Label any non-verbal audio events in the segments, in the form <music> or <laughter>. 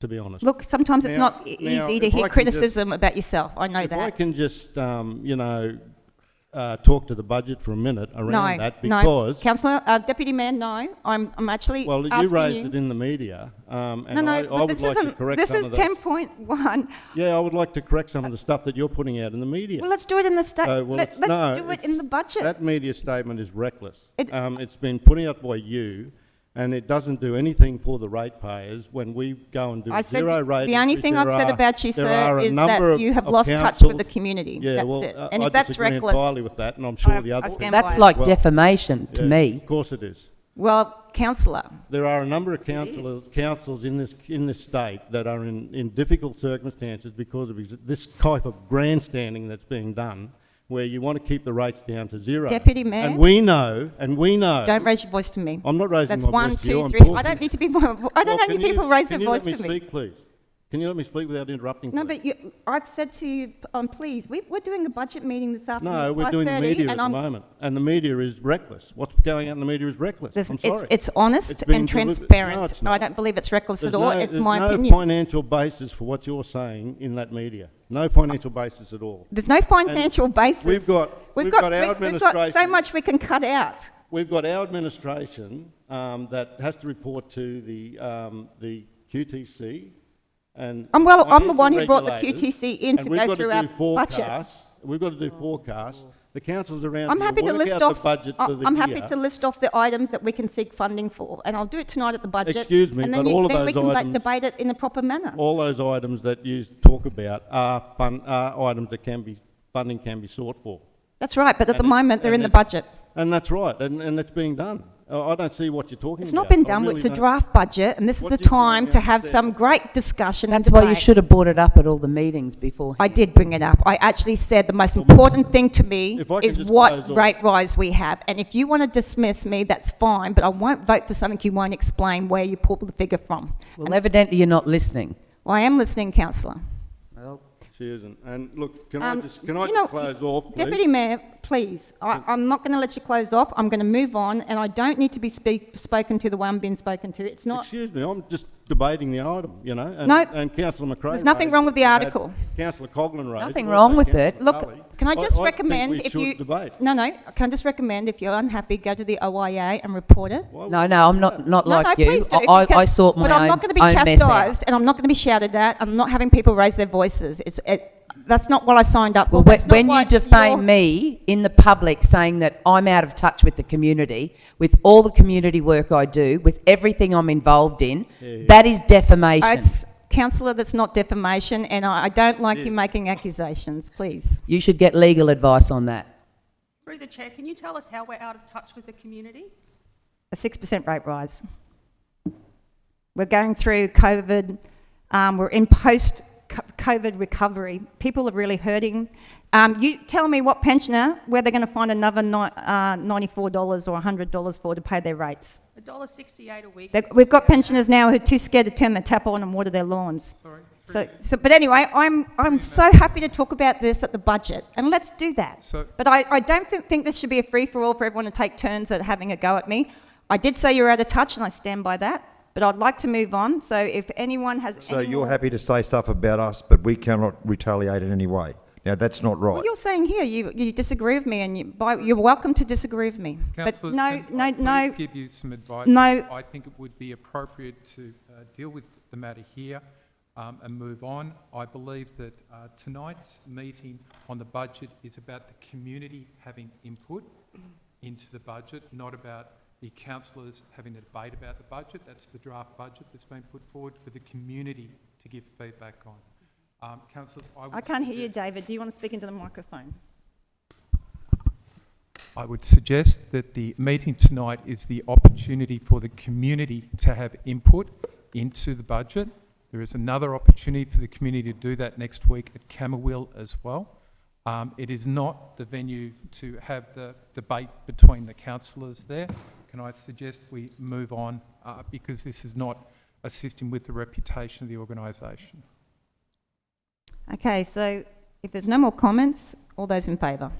to be honest. Look, sometimes it's Now- not e- now, easy to if I hear can just- criticism about yourself. I know if I that. can just, um, you know, uh, talk to the budget for a minute around no, that because no, councillor, uh, deputy mayor, no. I'm, I'm actually well, you asking raised it in the media, um, and no, no, I, but I would this like to isn't. correct this some is of the- 10.1. Yeah, I would like to correct some of the stuff that you're putting out in the media. Well, let's do it in the sta- So, Uh, well, let, it's- us no, do it it's- in the budget. That media statement is reckless. It- Um, it's been put out by you, and it doesn't do anything for the ratepayers when we go and do I a said zero rate. the only which thing there I've said are- about you, there sir, are a is number that of- you have of lost touch with the councils. community. Yeah, that's well, it. uh, And I if that's disagree reckless, entirely with that, and I'm sure I- the I others. stand by That's it. like Well- defamation to Yeah, me. Of course it is. well, councillor, There are a number of councillors, councils in this, in this state that are in, in difficult circumstances because of ex- this type of grandstanding that's being done, where you want to keep the rates down to zero. Deputy Mayor? And we know, and we know. don't raise your voice to me. Uh, I'm not raising That's my one, voice to two, you, I'm three. I talking. don't need to be. More, <laughs> I don't Well, need can you- people raise their voice Can you to let me speak, please? Can you let me speak without interrupting, No, please? but you, I've said to you, um, please, we, we're doing a budget meeting this afternoon. No, we're doing the 5:30, media at and the I'm- moment, and the media is reckless. What's going out in the media is reckless. Listen, I'm it's, sorry. it's honest It's been and deliberate- No, transparent. it's not. I don't believe it's reckless There's at all. no- it's my There's opinion. no financial basis for what you're saying in that media. No financial basis at all. There's no financial basis. we've got- we've got our we- We've got so administration- much we can cut out. We've got our administration um, that has to report to the, um, the QTC and. I'm Um, well- I'm the one who financial brought the regulators, QTC in to and we've go got through do our budget. forecasts. We've got to do forecasts. The councils around I'm here happy to work out list the off, budget I- for the I'm happy year. to list off the items that we can seek funding for, and I'll do it tonight at the budget. Excuse me, and then but you- all of Then we those can like items- debate it in a proper manner. All those items that you talk about are fun, are items that can be, funding can be sought for. That's right, but at the And it's- moment, they're in and the it's- budget. And that's right, and, and it's being done. I I don't see what you're talking about. It's not been I done, really it's a don't. draft budget, and this is What the do you want time me to to have say? some great discussion and That's why you debate. should have brought it up at all the meetings before. I did bring it up. I actually said the most important thing to me If I can is just what close off- rate rise we have. And if you want to dismiss me, that's fine, but I won't vote for something you won't explain where you pulled the figure from. Well, evidently you're not listening. Well, I am listening, councillor. Well, She isn't. And look, can I Um, just, can I you just know, close off, Deputy please? Mayor, please, I, I'm not going to let you close off. I'm going to move on, and I don't need to be speak, spoken to the way I'm being spoken to. It's not. Excuse me, I'm just debating the item, you know, and, No, and councillor McRae. there's nothing wrong with the raised- article. Councillor Coglan raised. Nothing also wrong with Councillor it. Look, Tully. can I just think recommend we if should you debate. no no can I just recommend if you're unhappy go to the OIA and report it. Why no, no, I'm not, not no, like no, you. please do. I, I, I because- sort my but I'm own, not going to be own mess out. chastised, and I'm not going to be shouted at. I'm not having people raise their voices. It's it, that's not what I signed up Well, for. when, It's not when you what your- defame me in the public saying that I'm out of touch with the community, with all the community work I do, with everything I'm involved in, that is defamation. it's councillor, that's not defamation, and I, I don't like you making accusations. Please, you should get legal advice on that. Through the chair, can you tell us how we're out of touch with the community? a six percent rate rise. We're going through COVID. Um, we're in post co- COVID recovery. People are really hurting. Um, you tell me what pensioner where they're going to find another ni- uh, ninety-four dollars or hundred dollars for to pay their rates. A dollar sixty-eight a week. They- We've got pensioners now who are too scared to turn the tap on and water their lawns. Sorry. So, so, but anyway, I'm, I'm so happy to talk about this at the budget, and let's do that. So- But I, I don't think, think this should be a free-for-all for everyone to take turns at having a go at me. I did say you're out of touch, and I stand by that, but I'd like to move on, so if anyone has So any you're more- happy to say stuff about us, but we cannot retaliate in any way. Now, that's not right. Well, you're saying here, you, you disagree with me, and you, by, you're welcome to disagree with me. But Councillors, no, can no, I no, please give you some advice? no. I think it would be appropriate to uh, deal with the matter here um, and move on. I believe that uh, tonight's meeting on the budget is about the community having input into the budget, not about the councillors having a debate about the budget. That's the draft budget that's been put forward for the community to give feedback on. Um, Councillors, I would I can't hear you, suggest- David. Do you want to speak into the microphone? I would suggest that the meeting tonight is the opportunity for the community to have input into the budget. There is another opportunity for the community to do that next week at Camberwell as well. Um, it is not the venue to have the debate between the councillors there. Can I suggest we move on, uh, because this is not assisting with the reputation of the organisation? Okay, so if there's no more comments, all those in favour?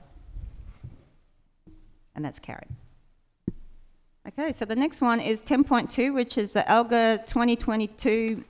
And that's carried. Okay, so the next one is 10.2, which is the ALGA 2022